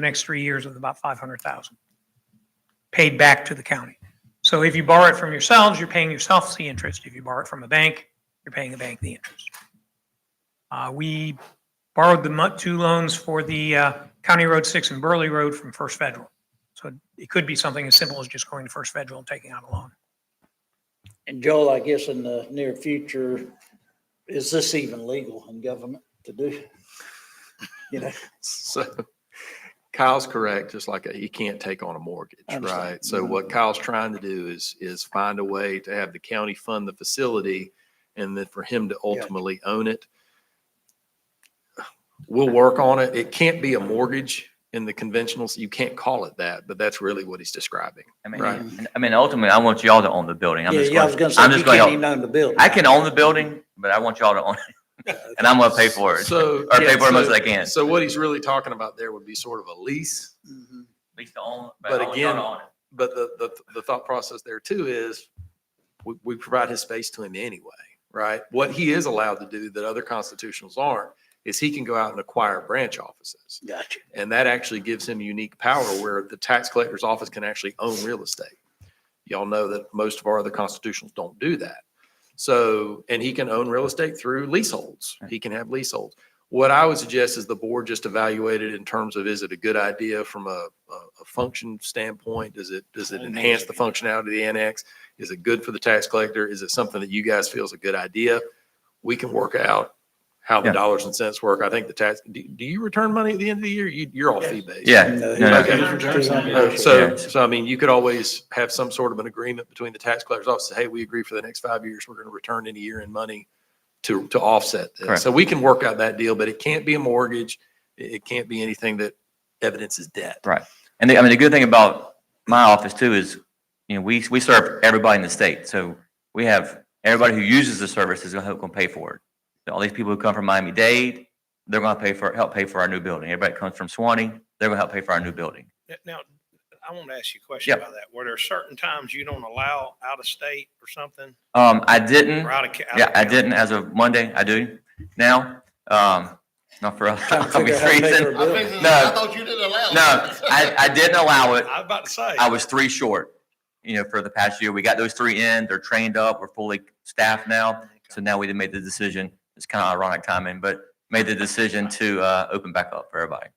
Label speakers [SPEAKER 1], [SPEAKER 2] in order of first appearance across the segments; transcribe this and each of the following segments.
[SPEAKER 1] the next three years of about 500,000 paid back to the county. So if you borrow it from yourselves, you're paying yourselves the interest. If you borrow it from a bank, you're paying the bank the interest. Uh, We borrowed the mu- two loans for the uh, County Road 6 and Burley Road from First Federal. So it could be something as simple as just going to First Federal and taking out a loan.
[SPEAKER 2] And Joel, I guess in the near future, is this even legal in government to do? You know,
[SPEAKER 3] So Kyle's correct, just like he can't take on a mortgage,
[SPEAKER 2] I understand.
[SPEAKER 3] right? So what Kyle's trying to do is, is find a way to have the county fund the facility and then for him to ultimately own it. We'll work on it. It can't be a mortgage in the conventionals. You can't call it that, but that's really what he's describing.
[SPEAKER 4] I mean,
[SPEAKER 3] Right.
[SPEAKER 4] and- I mean, ultimately, I want y'all to own the building. I'm
[SPEAKER 2] yeah,
[SPEAKER 4] just
[SPEAKER 2] yeah, I was gonna
[SPEAKER 4] going,
[SPEAKER 2] say,
[SPEAKER 4] I'm
[SPEAKER 2] you
[SPEAKER 4] just going,
[SPEAKER 2] can't even
[SPEAKER 4] to
[SPEAKER 2] own the building.
[SPEAKER 4] I can own the building, but I want y'all to own it. And I'm going to pay for it.
[SPEAKER 3] So.
[SPEAKER 4] Or pay
[SPEAKER 3] yeah,
[SPEAKER 4] for it as much
[SPEAKER 3] so-
[SPEAKER 4] as I can.
[SPEAKER 3] So what he's really talking about there would be sort of a lease.
[SPEAKER 2] Mhm.
[SPEAKER 4] At least to own-
[SPEAKER 3] But
[SPEAKER 4] I want y'all to
[SPEAKER 3] again-
[SPEAKER 4] own it.
[SPEAKER 3] But the, the, the thought process there too is we, we provide his space to him anyway, right? What he is allowed to do that other constitutionals aren't is he can go out and acquire branch offices.
[SPEAKER 2] Gotcha.
[SPEAKER 3] And that actually gives him unique power where the tax collector's office can actually own real estate. Y'all know that most of our other constitutionals don't do that. So, and he can own real estate through leaseholds. He can have leaseholds. What I would suggest is the board just evaluate it in terms of, is it a good idea from a, a a function standpoint? Does it, does it enhance the functionality of the annex? Is it good for the tax collector? Is it something that you guys feel is a good idea? We can work out how the
[SPEAKER 4] Yeah.
[SPEAKER 3] dollars and cents work. I think the tax, do, do you return money at the end of the year? You, you're all fee based.
[SPEAKER 4] Yeah.
[SPEAKER 2] No,
[SPEAKER 4] no, no.
[SPEAKER 3] Okay. Uh,
[SPEAKER 2] no.
[SPEAKER 3] So, so I mean, you could always have some sort of an agreement between the tax collector's office, say, hey, we agree for the next five years, we're going to return any year in money to, to offset this.
[SPEAKER 4] Correct.
[SPEAKER 3] So we can work out that deal, but it can't be a mortgage. It, it can't be anything that evidences debt.
[SPEAKER 4] And the, I mean, the good thing about my office too is, you know, we, we serve everybody in the state. So we have, everybody who uses the service is going to pay for it. So All these people who come from Miami-Dade, they're going to pay for, help pay for our new building. Everybody that comes from Swanee, they're going to help pay for our new building.
[SPEAKER 5] N- Now, I want to ask you a question
[SPEAKER 4] Yeah.
[SPEAKER 5] about that. Were there certain times you don't allow out of state or something
[SPEAKER 4] Um, I didn't.
[SPEAKER 5] or out of? ca- out of
[SPEAKER 4] Yeah, I
[SPEAKER 5] county?
[SPEAKER 4] didn't as of Monday. I do now. Um, not for
[SPEAKER 2] Trying to figure
[SPEAKER 4] obvious
[SPEAKER 2] out how to pay for a
[SPEAKER 4] reason.
[SPEAKER 6] I
[SPEAKER 2] building.
[SPEAKER 6] figured-
[SPEAKER 4] No.
[SPEAKER 6] I thought you didn't allow.
[SPEAKER 4] No, I, I didn't allow it.
[SPEAKER 5] I was about to say.
[SPEAKER 4] I was three short, you know, for the past year. We got those three in. They're trained up. We're fully staffed now. So now we did make the decision. It's kind of ironic timing, but made the decision to, uh, open back up for everybody.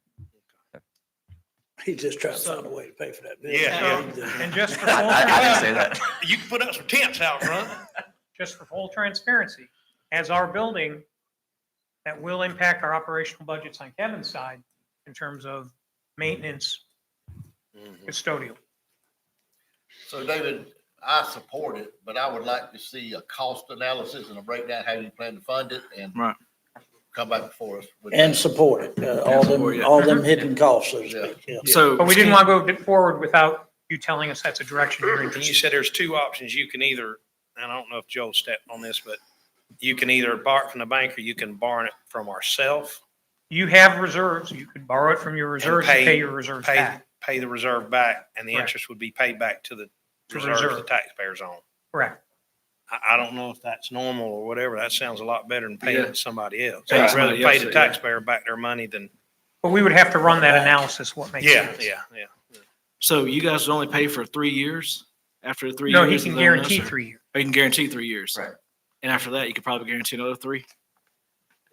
[SPEAKER 2] He's just trying to find a way to pay for that building. uh,
[SPEAKER 5] Yeah,
[SPEAKER 1] And just for full,
[SPEAKER 4] I I didn't say that.
[SPEAKER 5] You can put up some tents out front.
[SPEAKER 1] just for full transparency, as our building, that will impact our operational budgets on Kevin's side in terms of maintenance, custodial.
[SPEAKER 6] So David, I support it, but I would like to see a cost analysis and a breakdown, how you plan to fund it and
[SPEAKER 5] Right.
[SPEAKER 6] come back before us. with
[SPEAKER 2] And
[SPEAKER 6] that.
[SPEAKER 2] support it, uh, all them, all them hidden costs, so to speak, yeah.
[SPEAKER 7] So.
[SPEAKER 1] But we didn't want to go forward without you telling us that's a direction you're
[SPEAKER 5] And you
[SPEAKER 1] interested.
[SPEAKER 5] said there's two options. You can either, and I don't know if Joe stepped on this, but you can either borrow it from the bank or you can borrow it from ourself,
[SPEAKER 1] in. You have reserves, you could borrow it from your reserves and
[SPEAKER 5] pay-
[SPEAKER 1] pay your reserves
[SPEAKER 5] pay,
[SPEAKER 1] back.
[SPEAKER 5] pay the reserve back and the
[SPEAKER 1] Correct.
[SPEAKER 5] interest would be paid back to the
[SPEAKER 1] To
[SPEAKER 5] reserve
[SPEAKER 1] reserve.
[SPEAKER 5] the taxpayers on.
[SPEAKER 1] Correct.
[SPEAKER 5] I, I don't know if that's normal or whatever. That sounds a lot better than paying it to somebody else.
[SPEAKER 3] Yeah,
[SPEAKER 5] I'd rather
[SPEAKER 3] somebody else,
[SPEAKER 5] pay the
[SPEAKER 3] yeah.
[SPEAKER 5] taxpayer back their money than,
[SPEAKER 1] But we would have to run that analysis, what makes
[SPEAKER 5] yeah,
[SPEAKER 1] sense.
[SPEAKER 5] yeah, yeah.
[SPEAKER 7] So you guys only pay for three years? After the three years?
[SPEAKER 1] No, he
[SPEAKER 7] is
[SPEAKER 1] can
[SPEAKER 7] that when
[SPEAKER 1] guarantee
[SPEAKER 7] that's-
[SPEAKER 1] three years.
[SPEAKER 7] Oh, you can guarantee three years?
[SPEAKER 4] Right.
[SPEAKER 7] And after that, you could probably guarantee another three?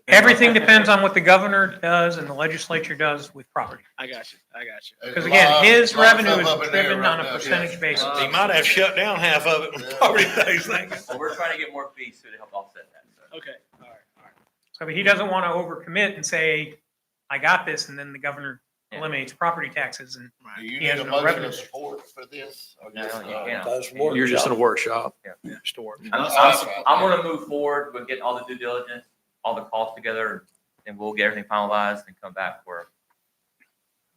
[SPEAKER 1] Everything depends on what the governor does and the legislature does with property.
[SPEAKER 7] I got you, I got you.
[SPEAKER 6] There's
[SPEAKER 1] Because
[SPEAKER 6] a
[SPEAKER 1] again,
[SPEAKER 6] lot-
[SPEAKER 1] his
[SPEAKER 6] lot of
[SPEAKER 1] revenue
[SPEAKER 6] stuff up
[SPEAKER 1] is
[SPEAKER 6] in there
[SPEAKER 1] driven
[SPEAKER 6] right
[SPEAKER 1] on a
[SPEAKER 6] now, yeah.
[SPEAKER 1] percentage basis.
[SPEAKER 5] He might have shut down half of it when property tax thing.
[SPEAKER 4] So we're trying to get more fees to help offset that.
[SPEAKER 7] Okay, all right, all right.
[SPEAKER 1] So he doesn't want to overcommit and say, I got this, and then the governor
[SPEAKER 4] Yeah.
[SPEAKER 1] eliminates property taxes and
[SPEAKER 6] Do you
[SPEAKER 1] He
[SPEAKER 6] need
[SPEAKER 1] has
[SPEAKER 6] a
[SPEAKER 1] no
[SPEAKER 6] motion
[SPEAKER 1] revenue.
[SPEAKER 6] of support for this? or
[SPEAKER 4] No,
[SPEAKER 6] just,
[SPEAKER 4] you
[SPEAKER 6] uh,
[SPEAKER 4] can't.
[SPEAKER 2] Those work-
[SPEAKER 3] You're just in a workshop.
[SPEAKER 5] Store.
[SPEAKER 4] I'm, I'm, I'm gonna move forward with getting all the due diligence, all the costs together, and we'll get everything finalized and come back for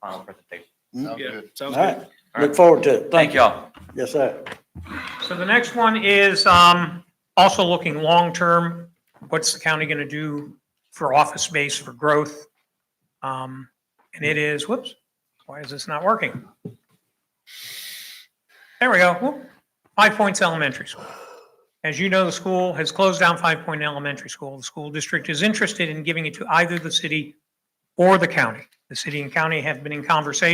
[SPEAKER 4] final presentation.
[SPEAKER 6] Sound
[SPEAKER 7] Yeah,
[SPEAKER 6] good.
[SPEAKER 2] All
[SPEAKER 7] sounds good.
[SPEAKER 2] right, look forward to it.
[SPEAKER 4] Thank y'all.
[SPEAKER 2] you. Yes, sir.
[SPEAKER 1] So the next one is um, also looking long-term. What's the county going to do for office space for growth? Um, And it is, whoops, why is this not working? There we go. Whoop. Five Points Elementary School. As you know, the school has closed down Five Point Elementary School. The school district is interested in giving it to either the city or the county. The city and county have been in conversation